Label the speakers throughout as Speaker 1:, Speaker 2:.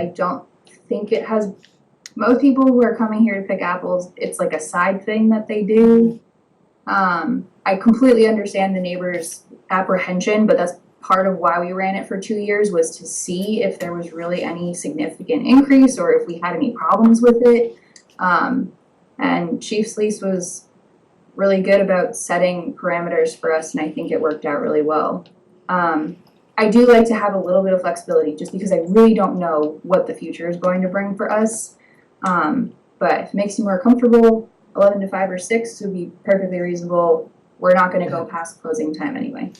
Speaker 1: I don't think it has, most people who are coming here to pick apples, it's like a side thing that they do. Um, I completely understand the neighbors' apprehension, but that's part of why we ran it for two years was to see if there was really any significant increase or if we had any problems with it. Um, and Chief Sleece was really good about setting parameters for us, and I think it worked out really well. Um, I do like to have a little bit of flexibility just because I really don't know what the future is going to bring for us. Um, but if it makes you more comfortable, 11 to 5 or 6 would be perfectly reasonable. We're not going to go past closing time anyway.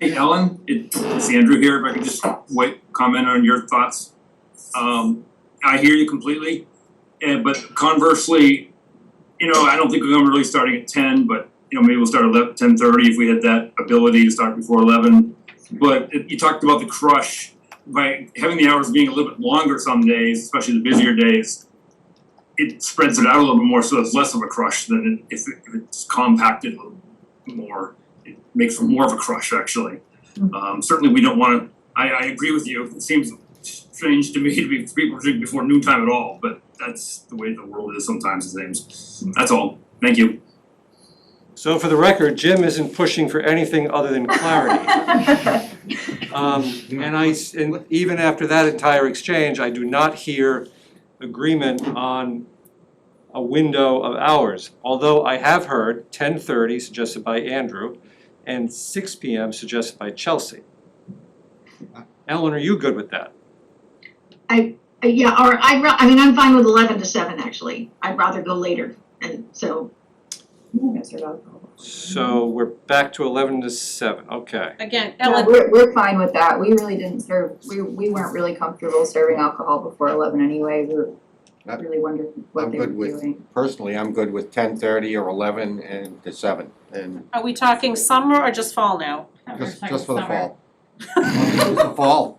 Speaker 2: Hey Ellen, it- it's Andrew here, if I could just wait, comment on your thoughts. Um I hear you completely, and but conversely, you know, I don't think we're gonna really starting at ten, but you know, maybe we'll start at ten thirty if we had that ability to start before eleven. But it- you talked about the crush, by having the hours being a little bit longer some days, especially the busier days, it spreads it out a little bit more, so it's less of a crush than it- if it- if it's compacted a little more it makes for more of a crush actually. Um certainly we don't wanna, I I agree with you, it seems strange to me to be people drink before noontime at all, but that's the way the world is sometimes it seems. That's all, thank you.
Speaker 3: So for the record, Jim isn't pushing for anything other than clarity. Um, and I, s- and even after that entire exchange, I do not hear agreement on a window of hours. Although I have heard ten thirty suggested by Andrew and six P M suggested by Chelsea. Ellen, are you good with that?
Speaker 4: Uh, Yeah, or I'd, ra- I mean, I'm fine with eleven to seven, actually. I'd rather go later, and so,
Speaker 3: So we're back to eleven to seven, okay.
Speaker 5: Again,
Speaker 1: Yeah,
Speaker 5: Ellen,
Speaker 1: we're, we're fine with that. We really didn't serve, we, we weren't really comfortable serving alcohol before 11 anyway. We were
Speaker 6: I-
Speaker 1: really wondered what
Speaker 6: I'm
Speaker 1: they were
Speaker 6: good with-
Speaker 1: doing.
Speaker 6: Personally, I'm good with ten thirty or eleven and to seven and
Speaker 5: are we talking summer or just fall now?
Speaker 6: just just for the fall. Just the fall.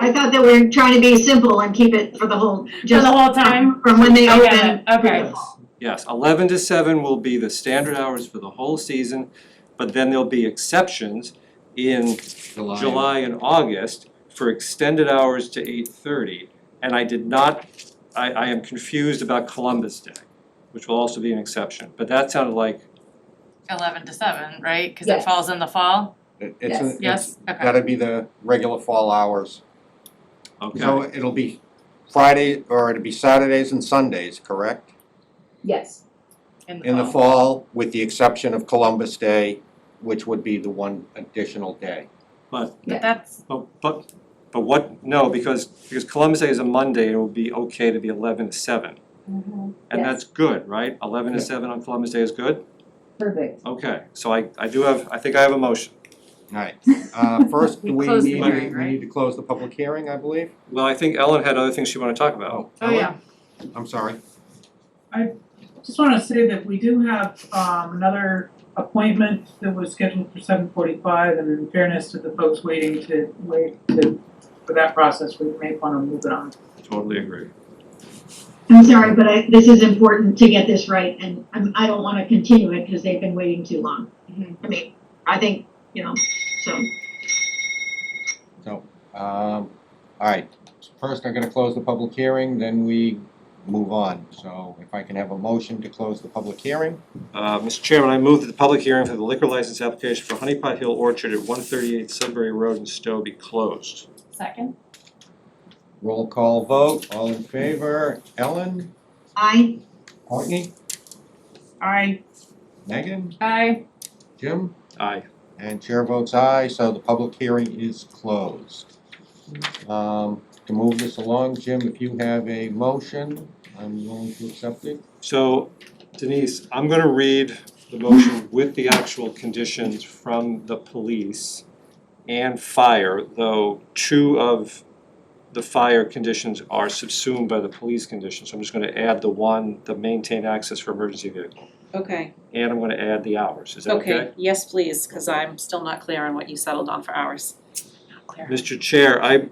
Speaker 4: I thought that we're trying to be simple and keep it for the whole,
Speaker 7: For
Speaker 4: just
Speaker 7: the whole time?
Speaker 4: from when they
Speaker 7: Okay,
Speaker 4: open.
Speaker 7: okay.
Speaker 3: Yes, eleven to seven will be the standard hours for the whole season, but then there'll be exceptions in July and August for extended hours to eight thirty. And I did not, I I am confused about Columbus Day, which will also be an exception, but that sounded like,
Speaker 7: Eleven to seven, right? Cause
Speaker 1: Yeah.
Speaker 7: it falls in the fall?
Speaker 6: It- It's
Speaker 1: Yes.
Speaker 6: a, it's
Speaker 7: Yes, okay.
Speaker 6: gotta be the regular fall hours.
Speaker 3: okay,
Speaker 6: So it'll be Friday or it'll be Saturdays and Sundays, correct?
Speaker 1: Yes.
Speaker 6: In
Speaker 3: Uh-huh.
Speaker 6: the fall, with the exception of Columbus Day, which would be the one additional day.
Speaker 3: but
Speaker 1: Yeah.
Speaker 7: But that's,
Speaker 3: but but but what, no, because because Columbus Day is a Monday, it will be okay to be eleven to seven. And
Speaker 1: Yes.
Speaker 3: that's good, right? Eleven to seven on Columbus Day is good?
Speaker 1: Perfect.
Speaker 3: Okay, so I I do have, I think I have a motion.
Speaker 6: Alright, uh first,
Speaker 7: We
Speaker 6: do we
Speaker 7: close the
Speaker 6: need, we
Speaker 7: hearing, right?
Speaker 6: need to close the public hearing, I believe?
Speaker 3: Well, I think Ellen had other things she wanted to talk about.
Speaker 7: oh yeah,
Speaker 6: I'm sorry.
Speaker 8: Just wanna say that we do have um another appointment that was scheduled for seven forty-five and in fairness to the folks waiting to wait to for that process, we may wanna move it on.
Speaker 3: Totally agree.
Speaker 4: I'm sorry, but I, this is important to get this right, and I'm, I don't wanna continue it, cause they've been waiting too long.
Speaker 7: Mhm.
Speaker 4: I mean, I think, you know, so.
Speaker 6: Um, alright, first I'm gonna close the public hearing, then we move on. So if I can have a motion to close the public hearing,
Speaker 3: Uh, Mr. Chairman, I move that the public hearing for the liquor license application for Honey Pot Hill Orchard at one thirty-eight Sudbury Road in Stowe be closed.
Speaker 7: second?
Speaker 6: roll call vote, all in favor, Ellen,
Speaker 4: I,
Speaker 6: Courtney,
Speaker 8: I
Speaker 6: Megan,
Speaker 7: I,
Speaker 6: Jim?
Speaker 3: Aye.
Speaker 6: And chair votes aye, so the public hearing is closed. Um, to move this along, Jim, if you have a motion, I'm willing to accept it.
Speaker 3: So Denise, I'm gonna read the motion with the actual conditions from the police and fire, though two of the fire conditions are subsumed by the police conditions. So I'm just gonna add the one, the maintain access for emergency vehicle,
Speaker 5: Okay,
Speaker 3: and I'm gonna add the hours. Is that okay?
Speaker 5: okay, yes, please, cause I'm still not clear on what you settled on for hours. Not clear.
Speaker 3: Mr. Chair, I,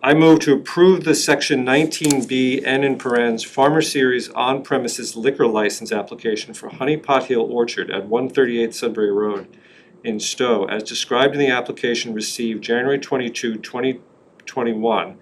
Speaker 3: I move to approve the section nineteen B N in parentheses Farmer Series on premises liquor license application for Honey Pot Hill Orchard at one thirty-eight Sudbury Road in Stowe, as described in the application received January 22, 2021,